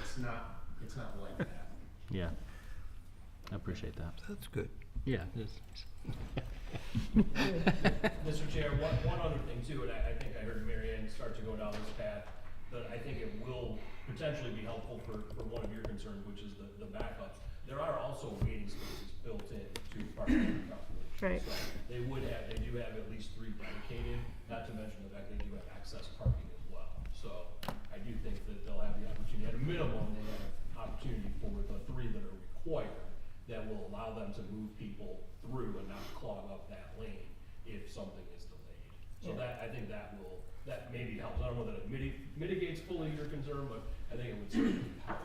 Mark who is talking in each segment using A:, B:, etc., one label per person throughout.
A: it's not, it's not like that.
B: Yeah. I appreciate that.
C: That's good.
B: Yeah, it's,
D: Mr. Chair, one, one other thing too, and I, I think I heard Mary Ann start to go down this path, but I think it will potentially be helpful for, for one of your concerns, which is the, the backups. There are also waiting spaces built in to parking calculations.
E: Right.
D: So They would have, they do have at least three dedicated, not to mention the fact they do have access parking as well. So I do think that they'll have the opportunity, at a minimum, they have opportunity for the three that are required that will allow them to move people through and not clog up that lane if something is delayed. So that, I think that will, that maybe helps. I don't know that it miti- mitigates fully your concern, but I think it would certainly help.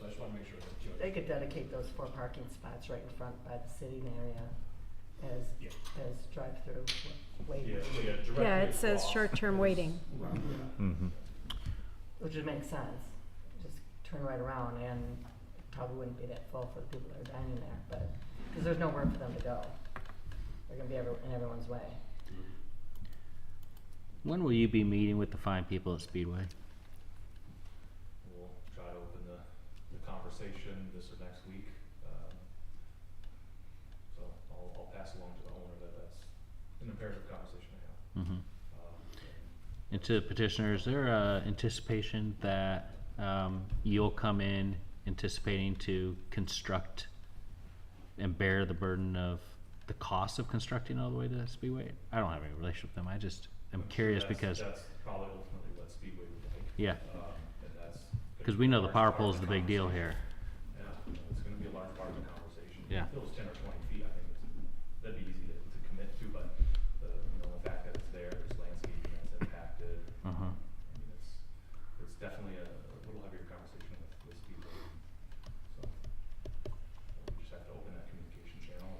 D: So I just wanna make sure that you
F: They could dedicate those four parking spots right in front by the sitting area as,
D: Yeah.
F: as drive-through
D: Yeah,
F: waivers,
D: so yeah, directly
E: Yeah, it says
D: across
E: short-term
D: is-
E: waiting.
C: Mm-hmm.
F: which would make sense. Just turn right around and it probably wouldn't be that full for the people that are dining there, but, because there's nowhere for them to go. They're gonna be every, in everyone's way.
B: when will you be meeting with the fine people at Speedway?
G: We'll try to open the, the conversation this or next week. Um, So I'll, I'll pass along to the owner that that's an imperative conversation to have.
B: Mm-hmm.
G: Um,
B: And to the petitioner, is there a anticipation that, um, you'll come in anticipating to construct and bear the burden of the cost of constructing all the way to Speedway? I don't have any relationship with them, I just am
G: so
B: curious
G: that's-
B: because,
G: That's probably ultimately what Speedway would like,
B: yeah,
G: um, and that's. gonna
B: cause
G: be
B: we
G: a
B: know the
G: large
B: power
G: part
B: pole's
G: of
B: the big deal here.
G: conversation. Yeah, it's gonna be a large part of the conversation.
B: Yeah.
G: If it was ten or twenty feet, I think it's, that'd be easy to, to commit to, but the, you know, the fact that it's there, there's landscaping that's impacted.
B: Uh-huh.
G: I mean, it's, it's definitely a, a little heavier conversation with, with Steve. Roden. So, we just have to open that communication channel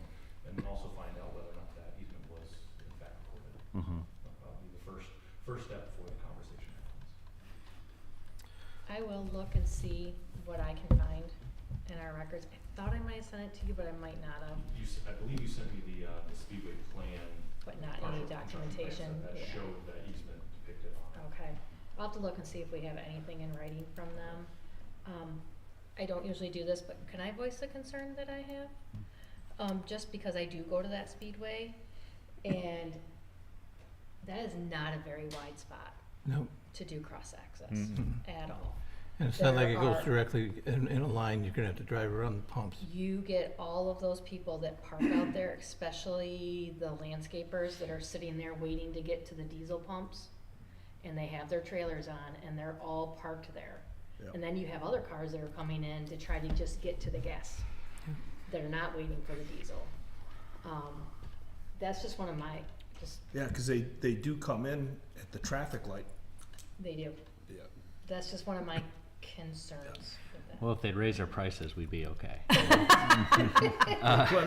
G: and, and also find out whether or not that easement was in fact recorded.
B: Mm-hmm.
G: That'll probably be the first, first step before the conversation happens.
H: I will look and see what I can find in our records. I thought I might have sent it to you, but I might not have,
G: You, s- I believe you sent me the, uh, the Speedway plan.
H: but not
G: partial
H: any
G: construction plans
H: documentation,
G: That that
H: yeah.
G: showed that easement depicted on it.
H: Okay, I'll have to look and see if we have anything in writing from them. Um, I don't usually do this, but can I voice the concern that I have? Um, just because I do go to that speedway, and that is not a very wide spot
C: No,
H: to do cross-access
C: Mhm.
H: at all.
C: and it's not like it
H: There
C: goes
H: are-
C: directly in, in a line, you're gonna have to drive around the pumps.
H: you get all of those people that park out there, especially the landscapers that are sitting there waiting to get to the diesel pumps. And they have their trailers on and they're all parked there. And then you have other cars that are coming in to try to just get to the gas. That are not waiting for the diesel. Um, that's just one of my, just,
A: Yeah, because they, they do come in at the traffic light.
H: they do,
A: Yeah.
H: that's just one of my concerns with that.
B: Well, if they'd raise their prices, we'd be okay.
A: Plenty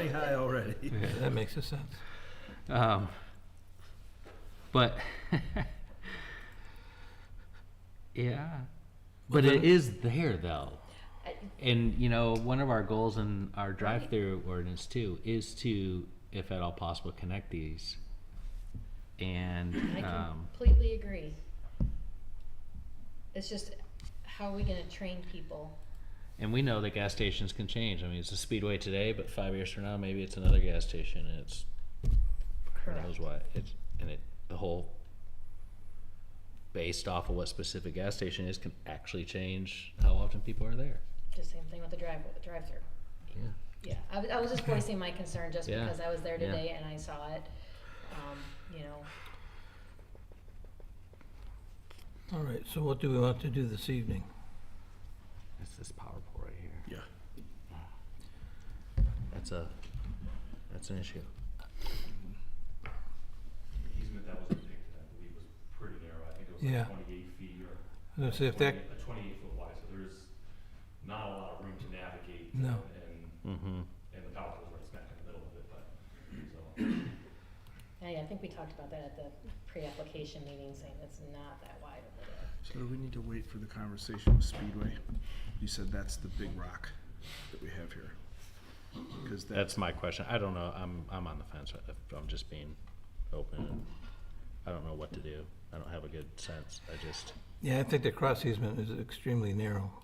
A: high already.
C: Yeah, that makes a sense.
B: Um, but yeah, but it is there though,
H: I-
B: and you know one of our goals in our drive-through ordinance too is to, if at all possible, connect these. And
H: I
B: um,
H: completely agree. It's just, how are we gonna train people?
B: and we know that gas stations can change. I mean, it's a speedway today, but five years from now, maybe it's another gas station, and it's who knows what it's and it the whole based off of what specific gas station is can actually change how often people are there
H: The same thing with the drive, the drive-through.
B: yeah
H: Yeah, I was, I was just voicing my concern just
B: Yeah,
H: because I was there
B: yeah.
H: today and I saw it, um, you know.
C: All right, so what do we want to do this evening?
B: it's this powerful right here
A: Yeah.
B: that's a that's an issue
G: The easement that was depicted, I believe, was pretty narrow. I think it was
C: Yeah.
G: like twenty-eight feet or
C: Let's see if that,
G: 28 A twenty-eight foot wide, so there's not a lot of room to navigate.
C: No.
G: And,
B: mm-hmm
G: and the power pole's right smack in the middle of it, but, so.
H: I, I think we talked about that at the pre-application meeting, saying it's not that wide of a deal.
A: So do we need to wait for the conversation with Speedway? You said that's the big rock that we have here. Because
B: that's
A: that's,
B: my question i don't know i'm i'm on the fence I- i'm just being open and i don't know what to do i don't have a good sense i just
C: yeah, I think the cross easement is extremely narrow.